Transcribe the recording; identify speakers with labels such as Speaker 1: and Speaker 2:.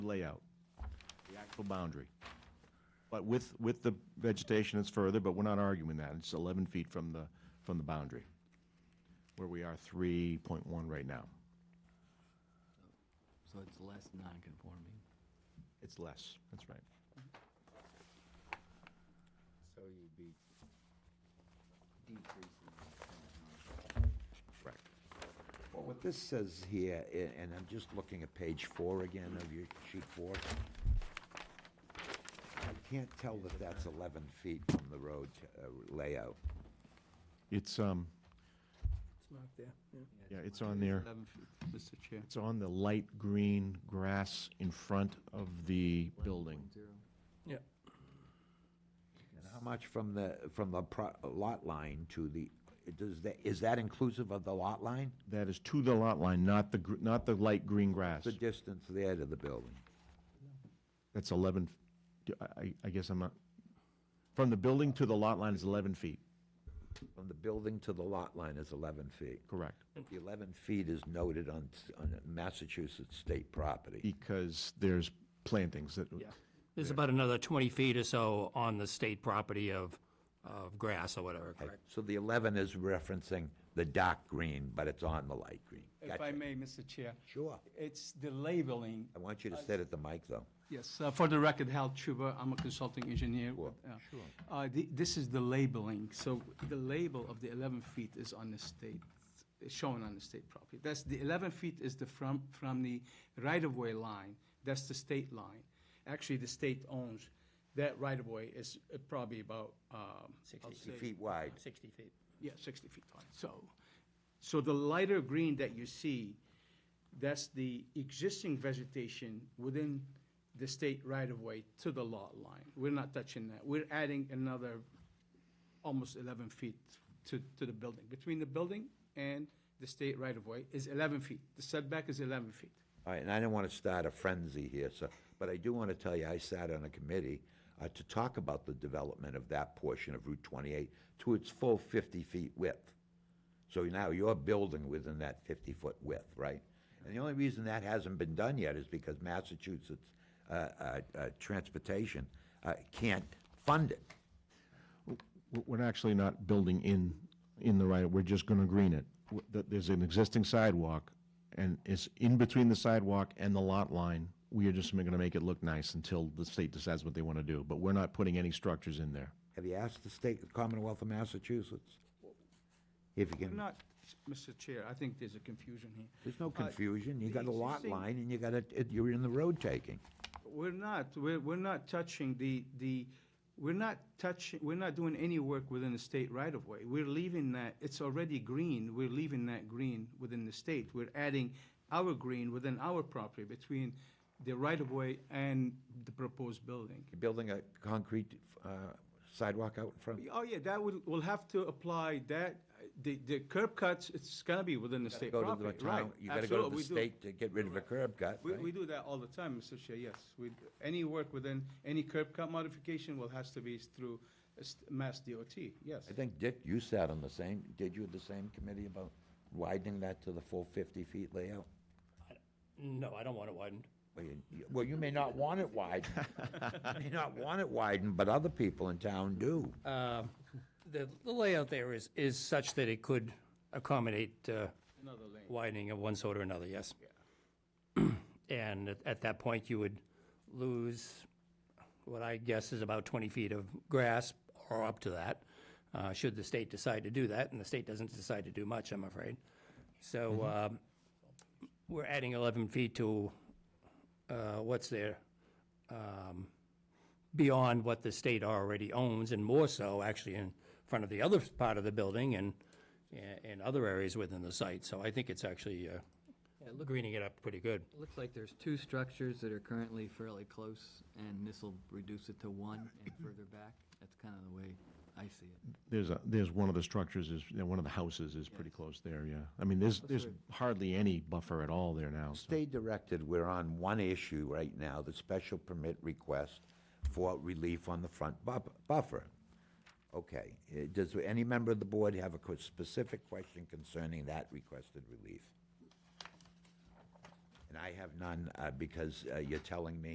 Speaker 1: layout, the actual boundary. But with, with the vegetation, it's further, but we're not arguing that. It's 11 feet from the, from the boundary, where we are 3.1 right now.
Speaker 2: So it's less non-conforming.
Speaker 1: It's less, that's right.
Speaker 2: So you'd be decreasing.
Speaker 1: Correct.
Speaker 3: Well, what this says here, a- and I'm just looking at page four again of your sheet four. I can't tell that that's 11 feet from the road uh, layout.
Speaker 1: It's, um,
Speaker 4: It's marked there, yeah.
Speaker 1: yeah, it's on there.
Speaker 5: Eleven feet, Mr. Chair.
Speaker 1: It's on the light green grass in front of the building.
Speaker 3: And how much from the, from the pro- lot line to the, does that, is that inclusive of the lot line?
Speaker 1: That is to the lot line, not the, gr- not the light green grass.
Speaker 3: The distance there to the building?
Speaker 1: That's 11, do- I, I- I guess I'm not, from the building to the lot line is 11 feet,
Speaker 3: From the building to the lot line is 11 feet.
Speaker 1: correct.
Speaker 3: The 11 feet is noted on, s- on Massachusetts state property.
Speaker 1: because there's plantings that,
Speaker 6: There's about another 20 feet or so on the state property of, of grass or whatever,
Speaker 3: Okay,
Speaker 6: correct?
Speaker 3: So the 11 is referencing the dark green, but it's on the light green.
Speaker 5: If
Speaker 3: Gotcha.
Speaker 5: I may, Mr. Chair,
Speaker 3: Sure.
Speaker 5: it's the labeling.
Speaker 3: I want you to sit at the mic, though.
Speaker 5: Yes, uh, for the record, Hal Chuba, I'm a consulting engineer.
Speaker 3: Sure,
Speaker 5: uh, uh, the- This is the labeling, so the label of the 11 feet is on the state, is shown on the state property. That's, the 11 feet is the, from, from the right-of-way line, that's the state line. Actually, the state owns, that right-of-way is uh, probably about, um, I'll
Speaker 3: 60
Speaker 5: say-
Speaker 3: feet wide.
Speaker 6: 60 feet.
Speaker 5: Yeah, 60 feet wide. So, so the lighter green that you see, that's the existing vegetation within the state right-of-way to the lot line. We're not touching that. We're adding another almost 11 feet to, to the building. Between the building and the state right-of-way is 11 feet. The setback is 11 feet.
Speaker 3: All right, and I don't want to start a frenzy here, so, but I do want to tell you, I sat on a committee uh, to talk about the development of that portion of Route 28 to its full 50 feet width. So now you're building within that 50-foot width, right? And the only reason that hasn't been done yet is because Massachusetts uh, uh, uh, Transportation uh, can't fund it.
Speaker 1: we're- we're actually not building in, in the right, we're just gonna green it. W- th- There's an existing sidewalk, and it's in between the sidewalk and the lot line. We are just gonna make it look nice until the state decides what they wanna do, but we're not putting any structures in there.
Speaker 3: Have you asked the state, the Commonwealth of Massachusetts? If you
Speaker 5: I'm
Speaker 3: can,
Speaker 5: not, Mr. Chair, I think there's a confusion here.
Speaker 3: there's no
Speaker 5: Uh,
Speaker 3: confusion, you
Speaker 5: the
Speaker 3: got a lot
Speaker 5: existing-
Speaker 3: line, and you got a, it- you're in the road taking.
Speaker 5: We're not, we're, we're not touching the, the, we're not touching, we're not doing any work within the state right of way. We're leaving that, it's already green, we're leaving that green within the state. We're adding our green within our property between the right of way and the proposed building.
Speaker 3: You're building a concrete uh, sidewalk out in front?
Speaker 5: Oh, yeah, that will, we'll have to apply that, the, the curb cuts, it's gonna be within the state
Speaker 3: Go to the
Speaker 5: property, right?
Speaker 3: town, you gotta go to
Speaker 5: Absolutely,
Speaker 3: the
Speaker 5: we do.
Speaker 3: state to get rid of a curb cut,
Speaker 5: We, we
Speaker 3: right?
Speaker 5: do that all the time, Mr. Chair, yes. We, any work within, any curb cut modification will, has to be through uh, st- Mass DOT, yes.
Speaker 3: I think, Dick, you sat on the same, did you, the same committee about widening that to the full 50 feet layout?
Speaker 6: No, I don't want it widened.
Speaker 3: Well, you- you- Well, you may not want it widened. You may not want it widened, but other people in town do.
Speaker 6: Um, The the layout there is, is such that it could accommodate uh,
Speaker 5: Another lane.
Speaker 6: widening of one sort or another, yes? And at- at that point, you would lose what I guess is about 20 feet of grass or up to that, uh, should the state decide to do that, and the state doesn't decide to do much, I'm afraid. So um, we're adding 11 feet to uh, what's there, um, beyond what the state already owns, and more so, actually, in front of the other part of the building and, and other areas within the site. So I think it's actually uh, greening it up pretty good.
Speaker 2: Looks like there's two structures that are currently fairly close, and this'll reduce it to one and further back. That's kind of the way I see it.
Speaker 1: There's a, there's one of the structures is, you know, one of the houses is pretty close there, yeah. I mean, there's, there's hardly any buffer at all there now, so.
Speaker 3: Stay directed, we're on one issue right now, the special permit request for relief on the front buf- buffer. Okay, eh, does any member of the board have a que- specific question concerning that requested relief? And I have none, uh, because uh, you're telling me